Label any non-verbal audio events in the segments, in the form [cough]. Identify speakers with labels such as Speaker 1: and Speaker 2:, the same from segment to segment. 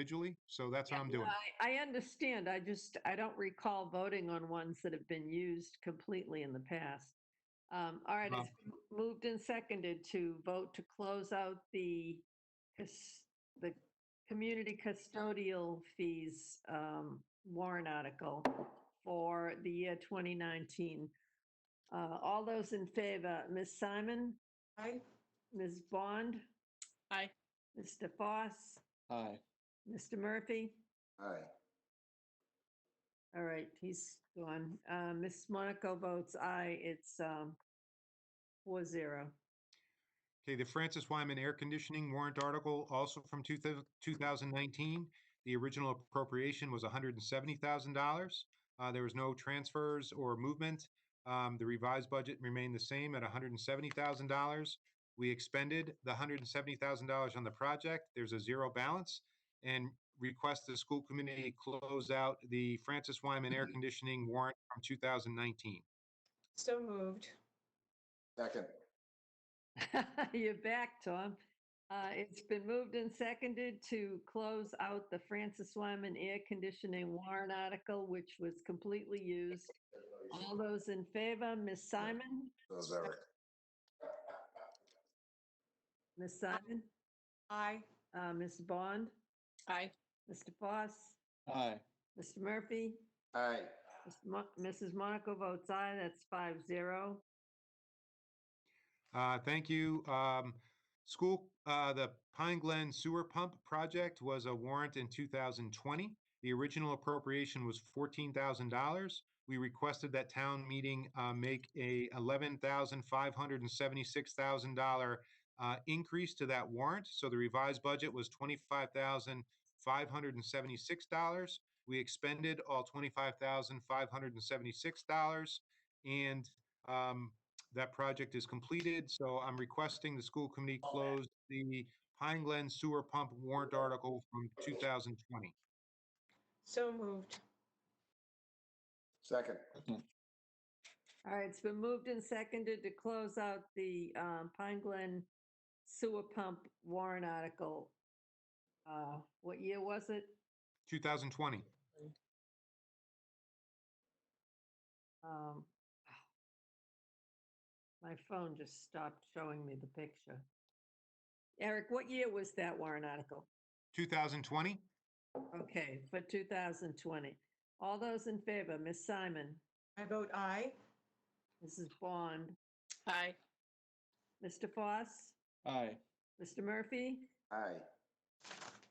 Speaker 1: individually, so that's what I'm
Speaker 2: Yeah, no,
Speaker 1: doing.
Speaker 2: I I understand. I just, I don't recall voting on ones that have been used completely in the past. Um, All right, it's been moved and seconded to vote to close out the, cus- the community custodial fees um, warrant article for the year 2019. Uh, All those in favor, Ms. Simon,
Speaker 3: Aye.
Speaker 2: Ms. Bond?
Speaker 3: Aye.
Speaker 2: Mr. Foss,
Speaker 4: Aye.
Speaker 2: Mr. Murphy?
Speaker 5: Aye.
Speaker 2: All right, he's gone. Uh, Ms. Monaco votes aye. It's um, four zero. [laughs]
Speaker 1: Okay, the Francis Wyman Air Conditioning warrant article, also from two thou- 2019. The original appropriation was $170,000. Uh, There was no transfers or movement. Um, The revised budget remained the same at $170,000. We expended the $170,000 on the project. There's a zero balance. And request the school committee close out the Francis Wyman
Speaker 2: Mm-hmm.
Speaker 1: Air Conditioning warrant from 2019.
Speaker 3: So moved.
Speaker 5: Second.
Speaker 2: You're back, Tom. Uh, It's been moved and seconded to close out the Francis Wyman air conditioning warrant article, which was completely used. All those in favor, Ms. Simon?
Speaker 5: Those Eric.
Speaker 2: Ms. Simon?
Speaker 3: Aye.
Speaker 2: Uh, Ms. Bond?
Speaker 3: Aye.
Speaker 2: Mr. Foss?
Speaker 4: Aye.
Speaker 2: Mr. Murphy?
Speaker 5: Aye.
Speaker 2: Mr. Mo- Mrs. Monaco votes aye. That's five zero.
Speaker 1: Uh, thank you. Um, school, uh, the Pine Glen Sewer Pump Project was a warrant in two thousand twenty. The original appropriation was fourteen thousand dollars. We requested that town meeting, uh, make a eleven thousand five hundred and seventy-six thousand dollar uh, increase to that warrant. So the revised budget was twenty-five thousand five hundred and seventy-six dollars. We expended all twenty-five thousand five hundred and seventy-six dollars. And, um, that project is completed, so I'm requesting the school committee close the Pine Glen Sewer Pump warrant article from 2020.
Speaker 3: So moved.
Speaker 5: Second.
Speaker 2: All right, it's been moved and seconded to close out the um, Pine Glen sewer pump warrant article. Uh, What year was it?
Speaker 1: 2020.
Speaker 2: Um, [sighs] My phone just stopped showing me the picture. Eric, what year was that warrant article?
Speaker 1: 2020?
Speaker 2: Okay, for 2020. All those in favor, Ms. Simon,
Speaker 3: I vote aye.
Speaker 2: Mrs. Bond,
Speaker 3: Aye.
Speaker 2: Mr. Foss,
Speaker 4: Aye.
Speaker 2: Mr. Murphy?
Speaker 5: Aye.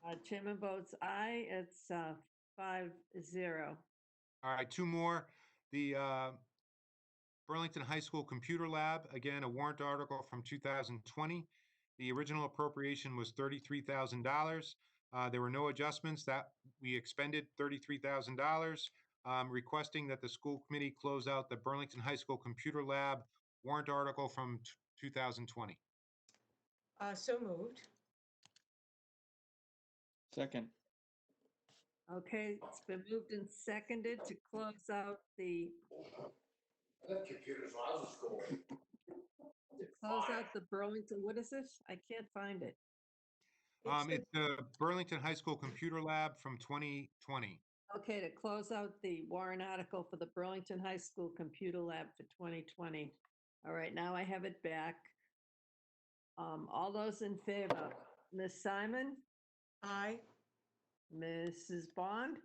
Speaker 2: Uh, Chairman votes aye. It's uh, five zero.
Speaker 1: All right, two more. The uh, Burlington High School Computer Lab, again, a warrant article from 2020. The original appropriation was $33,000. Uh, There were no adjustments that we expended $33,000. um, Requesting that the school committee close out the Burlington High School Computer Lab warrant article from t- 2020.
Speaker 3: Uh, so moved.
Speaker 4: Second.
Speaker 2: Okay, it's been moved and seconded to close out the,
Speaker 5: That computer's out of school.
Speaker 2: to close out the Burlington, what is this? I can't find it.
Speaker 1: Um,
Speaker 2: It's
Speaker 1: It's the Burlington High School Computer Lab from 2020.
Speaker 2: a- Okay, to close out the warrant article for the Burlington High School Computer Lab for 2020. All right, now I have it back. Um, All those in favor, Ms. Simon,
Speaker 3: Aye.
Speaker 2: Mrs. Bond,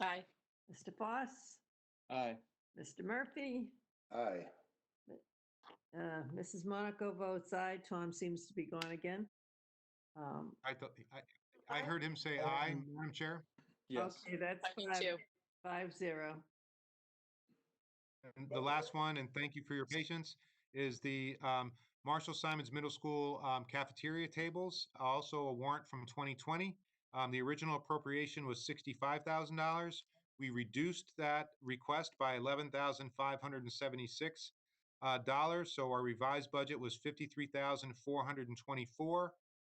Speaker 3: Aye.
Speaker 2: Mr. Foss,
Speaker 4: Aye.
Speaker 2: Mr. Murphy,
Speaker 5: Aye.
Speaker 2: Uh, Mrs. Monaco votes aye. Tom seems to be gone again. Um,
Speaker 1: I thought, I- I heard him say aye, Madam Chair.
Speaker 4: Yes.
Speaker 2: Okay, that's
Speaker 3: Second
Speaker 2: five,
Speaker 3: too.
Speaker 2: five zero.
Speaker 1: And the last one, and thank you for your patience, is the um, Marshall Simons Middle School um, cafeteria tables, also a warrant from 2020. Um, The original appropriation was $65,000. We reduced that request by $11,576. uh, dollars, So our revised budget was $53,424.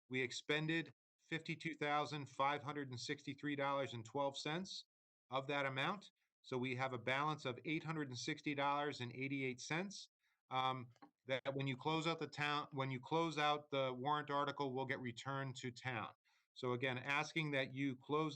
Speaker 1: We expended $52,563.12 of that amount. So we have a balance of eight hundred and sixty dollars and eighty-eight cents. Um, that when you close out the town, when you close out the warrant article, will get returned to town. So again, asking that you close